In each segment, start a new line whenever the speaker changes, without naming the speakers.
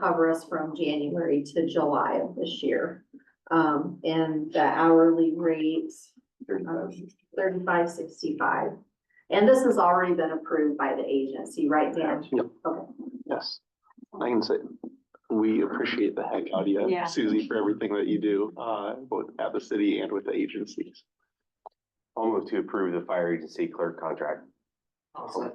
cover us from January to July of this year. Um, and the hourly rate,
Thirty-five,
um, thirty-five sixty-five. And this has already been approved by the agency, right, Dan?
Yep.
Okay.
Yes, I can say, we appreciate the heck out of you,
Yeah.
Susie, for everything that you do, uh, both at the city and with the agencies.
I'll move to approve the fire agency clerk contract.
All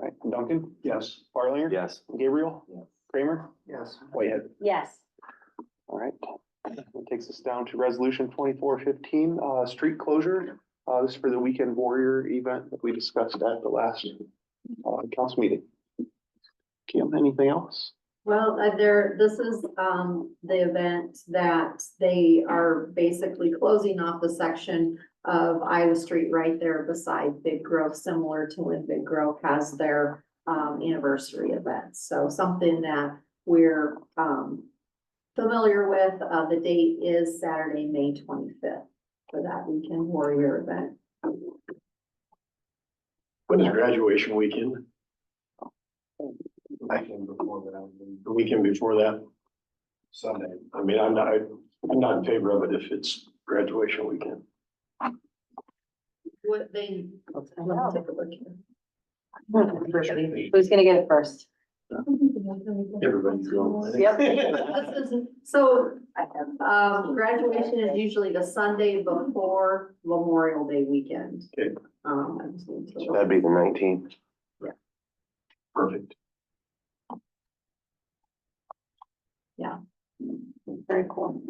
right, Duncan? Yes. Barlinger?
Yes.
Gabriel?
Yes.
Kramer?
Yes.
Whitehead.
Yes,
All right, that takes us down to resolution twenty-four fifteen, uh, street closure. Uh, this is for the Weekend Warrior event that we discussed at the last, uh, council meeting. Kim, anything else?
Well, uh, there, this is, um, the event that they are basically closing off the section of Iowa Street right there beside Big Grove, similar to when Big Grove has their, um, anniversary event. So something that we're, um, familiar with, uh, the date is Saturday, May twenty-fifth for that weekend warrior event.
When is graduation weekend? Weekend before that. The weekend before that? Sunday. I mean, I'm not, I'm not in favor of it if it's graduation weekend.
What they. Let me take a look here.
who's gonna get it first?
Everybody's going.
This is- So, um, graduation is usually the Sunday before Memorial Day weekend.
Okay.
Um, I just need to
So
look.
that'd be the nineteenth.
Perfect.
Very cool.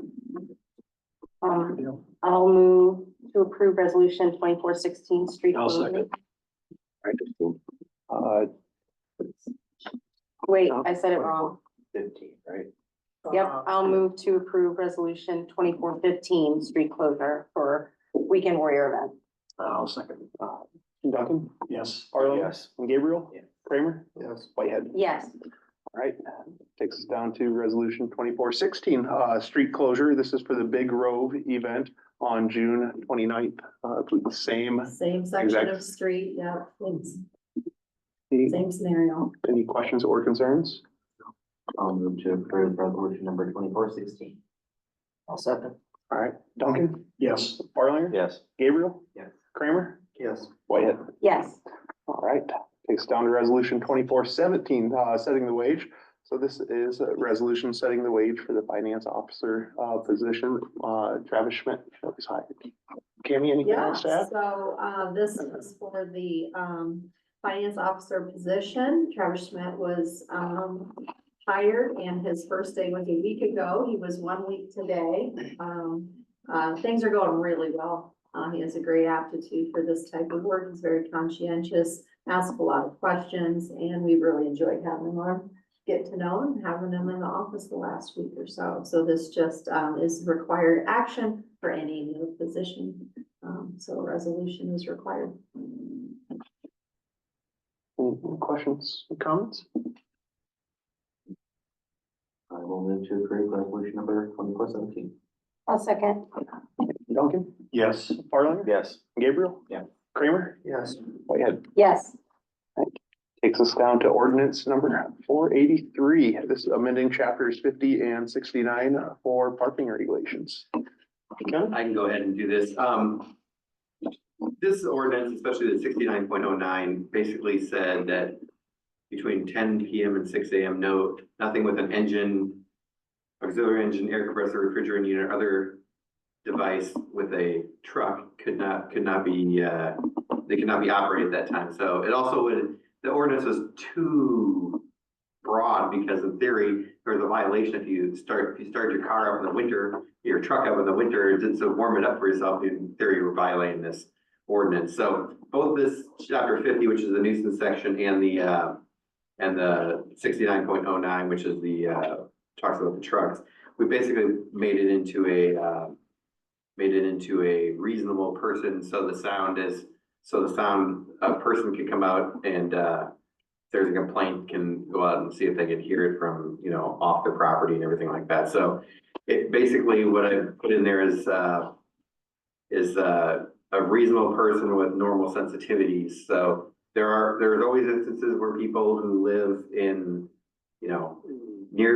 Um, I'll move to approve resolution twenty-four sixteen, street
I'll
closing.
Uh,
Wait, I said it wrong.
Fifteen, right?
Yep, I'll move to approve resolution twenty-four fifteen, street closure for weekend warrior event.
Uh,
I'll second.
Uh, Duncan?
Yes.
Barlinger?
Yes.
Gabriel?
Yeah.
Kramer?
Yes.
Whitehead.
Yes,
All right, takes us down to resolution twenty-four sixteen, uh, street closure. This is for the Big Rove event on June 29th. Uh, I believe the same.
Same section
Exact-
of street, yeah, it's
Any
same scenario.
any questions or concerns?
I'll move to approve resolution number twenty-four sixteen. I'll second.
All right, Duncan,
Yes.
Barlinger?
Yes.
Gabriel?
Yes.
Kramer?
Yes.
Whitehead.
yes,
All right, takes down to resolution twenty-four seventeen, uh, setting the wage. So this is a resolution setting the wage for the finance officer, uh, position, uh, Travis Schmidt was hired. Cammy, anything
Yeah,
else to add?
so, uh, this is for the, um, finance officer position. Travis Schmidt was, um, hired and his first day was a week ago. He was one week today. Um, uh, things are going really well. Uh, he has a great aptitude for this type of work. He's very conscientious, asks a lot of questions, and we really enjoyed having him on. Get to know him, having him in the office the last week or so. So this just, um, is required action for any new position. Um, so a resolution is required.
Any questions, comments?
I will move to approve resolution number twenty-four seventeen.
I'll second.
Duncan,
Yes.
Farland,
Yes.
Gabriel?
Yeah.
Kramer? Oh,
Yes.
Whitehead.
Yes,
Takes us down to ordinance number four eighty-three. This is amending chapters fifty and sixty-nine for parking regulations. Ken?
I can go ahead and do this. Um, this ordinance, especially the sixty-nine point oh nine, basically said that between ten PM and six AM, no, nothing with an engine, auxiliary engine, air compressor, refrigerant unit, or other device with a truck could not, could not be, uh, they could not be operated at that time. So it also would, the ordinance was too broad because in theory, there's a violation if you start, if you start your car up in the winter your truck up in the winter, and did so warm it up for yourself, in theory, you're violating this ordinance. So both this chapter fifty, which is the nuisance section, and the, uh, and the sixty-nine point oh nine, which is the, uh, talks about the trucks, we basically made it into a, uh, made it into a reasonable person, so the sound is, so the sound, a person can come out and, uh, if there's a complaint, can go out and see if they can hear it from, you know, off their property and everything like that. So it basically, what I put in there is, uh, is, uh, a reasonable person with normal sensitivities. So there are, there's always instances where people who live in, you know,